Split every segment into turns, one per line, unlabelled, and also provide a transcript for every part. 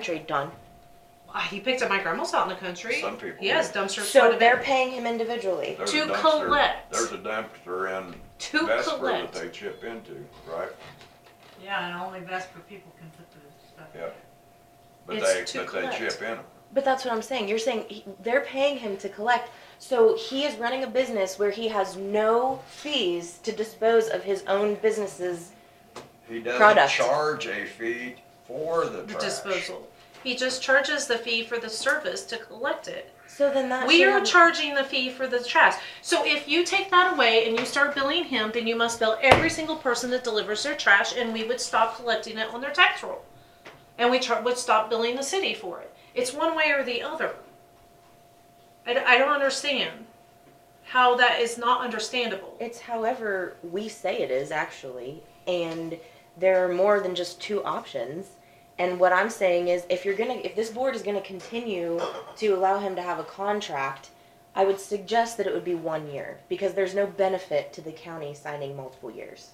country done.
Uh, He picked up my grandma's out in the country.
Some people
Yes, dumpster. quite a
So
bit.
they're paying him individually.
There's
To
a dumpster-
collect.
There's a dumpster in
To
Vesper that
collect.
they chip into, right?
Yeah, and only Vesper people can put the stuff.
Yeah. But
It's
they,
to
but they
collect.
chip in them.
But that's what I'm saying. You're saying he, they're paying him to collect. So he is running a business where he has no fees to dispose of his own businesses.
He doesn't
Product.
charge a fee for the
The
trash.
disposal. He just charges the fee for the service to collect it.
So then that
We
should
are
have-
charging the fee for the trash. So if you take that away and you start billing him, then you must bill every single person that delivers their trash, and we would stop collecting it on their tax roll, and we char- would stop billing the city for it. It's one way or the other. I, d- I don't understand how that is not understandable.
It's however we say it is actually, and there are more than just two options. And what I'm saying is, if you're gonna, if this board is gonna continue to allow him to have a contract, I would suggest that it would be one year because there's no benefit to the county signing multiple years.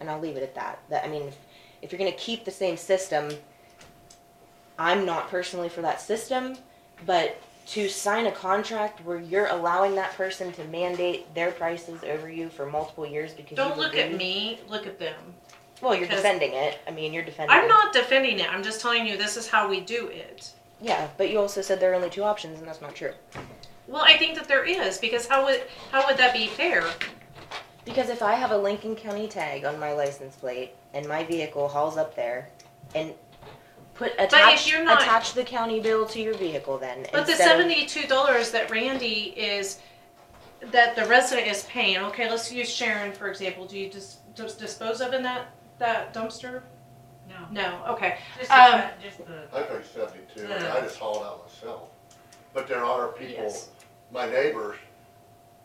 And I'll leave it at that. That I mean, if, if you're gonna keep the same system, I'm not personally for that system, but to sign a contract where you're allowing that person to mandate their prices over you for multiple years because
Don't
you've
look at
agreed-
me, look at them.
Well, you're
'cause-
defending it. I mean, you're defending.
I'm
it.
not defending it, I'm just telling you this is how we do it.
Yeah, but you also said there are only two options, and that's not true.
Well, I think that there is, because how would, how would that be fair?
Because if I have a Lincoln County tag on my license plate and my vehicle hauls up there, and put attach
you're not-
attach the county bill to your vehicle, then
But
instead
the
of-
seventy-two dollars that Randy is, that the resident is paying, okay, let's use Sharon, for example, do you just, just dispose of in that, that dumpster?
No,
No, okay,
just
Um,
the, just the,
I paid seventy-two, and I just hauled out myself. But there are people,
Yes.
my neighbors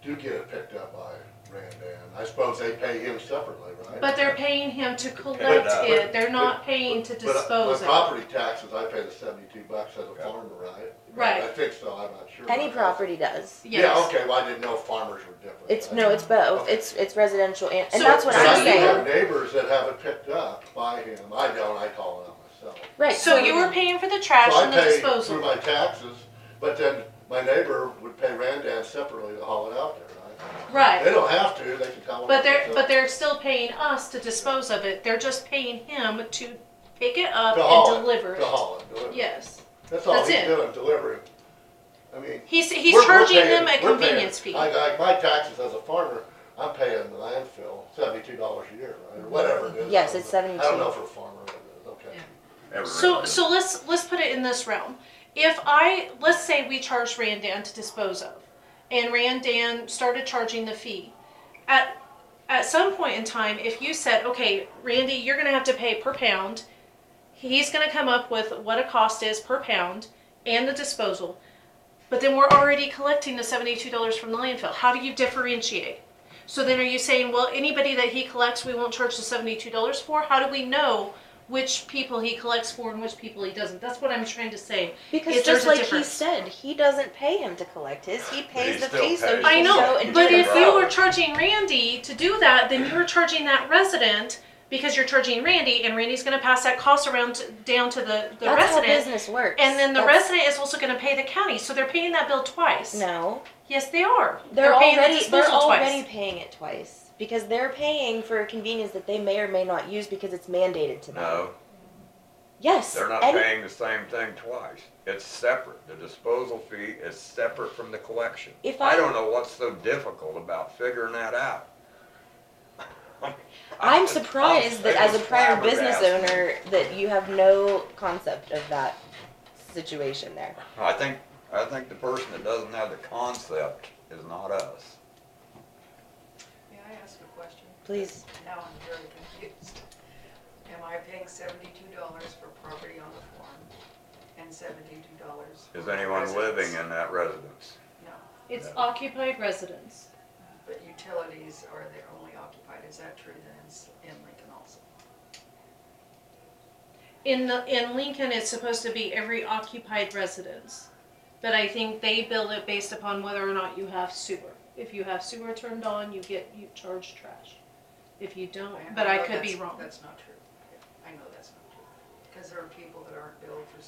do get it picked up by Randan. I suppose they pay him separately, right?
but they're paying him to collect
But, uh,
it, they're not
But-
paying to
but I-
dispose
My
of it.
property taxes, I pay the seventy-two bucks as a
Yeah.
farmer, right? I
Right,
think so, I'm not sure.
any property does.
Yeah,
yes.
okay, well, I didn't know farmers were different.
It's no, it's both.
Okay.
It's it's residential and, and
So-
that's what
But I
I'm
do
saying.
have neighbors that have it picked up by him. I don't, I haul it out myself.
Right.
So you were paying for the trash
So I
and the
pay through
disposal.
my taxes, but then my neighbor would pay Randan separately to haul it out there, right? They
Right,
don't have to, they can haul it.
but
out
they're,
themselves.
but they're still paying us to dispose of it, they're just paying him to pick it up
To haul
and deliver
To
it.
haul it, deliver.
Yes,
That's all
that's
he's
it.
doing, delivering. I mean.
he's, he's
we're- we're
charging
paying-
them a
we're paying-
convenience fee.
I, I, my taxes as a farmer, I'm paying the landfill seventy-two dollars a year, right, or whatever it is.
Yes,
I don't
it's
know. I
72.
don't know for a farmer, what it is. okay.
Yeah.
Every
So,
resident.
so let's, let's put it in this realm. If I, let's say we charge Randan to dispose of, and Randan started charging the fee. At, at some point in time, if you said, okay, Randy, you're gonna have to pay per pound, he's gonna come up with what a cost is per pound and the disposal, but then we're already collecting the seventy-two dollars from the landfill, how do you differentiate? So then are you saying, well, anybody that he collects, we won't charge the seventy-two dollars for? How do we know which people he collects for and which people he doesn't? That's what I'm trying to say.
Because
Is
just
there's a
like he
difference.
said, he doesn't pay him to collect his. He pays
he
the
still
fee so he
pays.
I
can go
know,
and
but
do
if
the
you
job.
were charging Randy to do that, then you were charging that resident because you're charging Randy, and Randy's going to pass that cost around to, down to the, the
that's how
resident.
business works.
And then the
That's-
resident is also going to pay the county, so they're paying that bill twice.
No,
Yes, they are.
they're,
paying the
already they're
disposal
already
twice.
paying it twice because they're paying for a convenience that they may or may not use because it's mandated to them.
No,
Yes.
they're not
any-
paying the same thing twice. It's separate. The disposal fee is separate from the collection.
If I-
I don't know what's so difficult about figuring that out.
I'm surprised that as a prior business
flabbergasted.
owner that you have no concept of that situation there.
I think, I think the person that doesn't have the concept is not us.
May I ask a question?
Please.
Now I'm very confused. Am I paying seventy-two dollars for property on the farm and seventy-two dollars?
Is anyone living in that residence?
No,
It's
No.
occupied residents.
but utilities are, they're only occupied, is that true then in S- in Lincoln also?
In the, in Lincoln, it's supposed to be every occupied residence, but I think they build it based upon whether or not you have sewer. If you have sewer turned on, you get you charge trash. If you don't, but
know
I could
that's-
be wrong.
That's not true. I know that's not true. Cause there are people that aren't billed for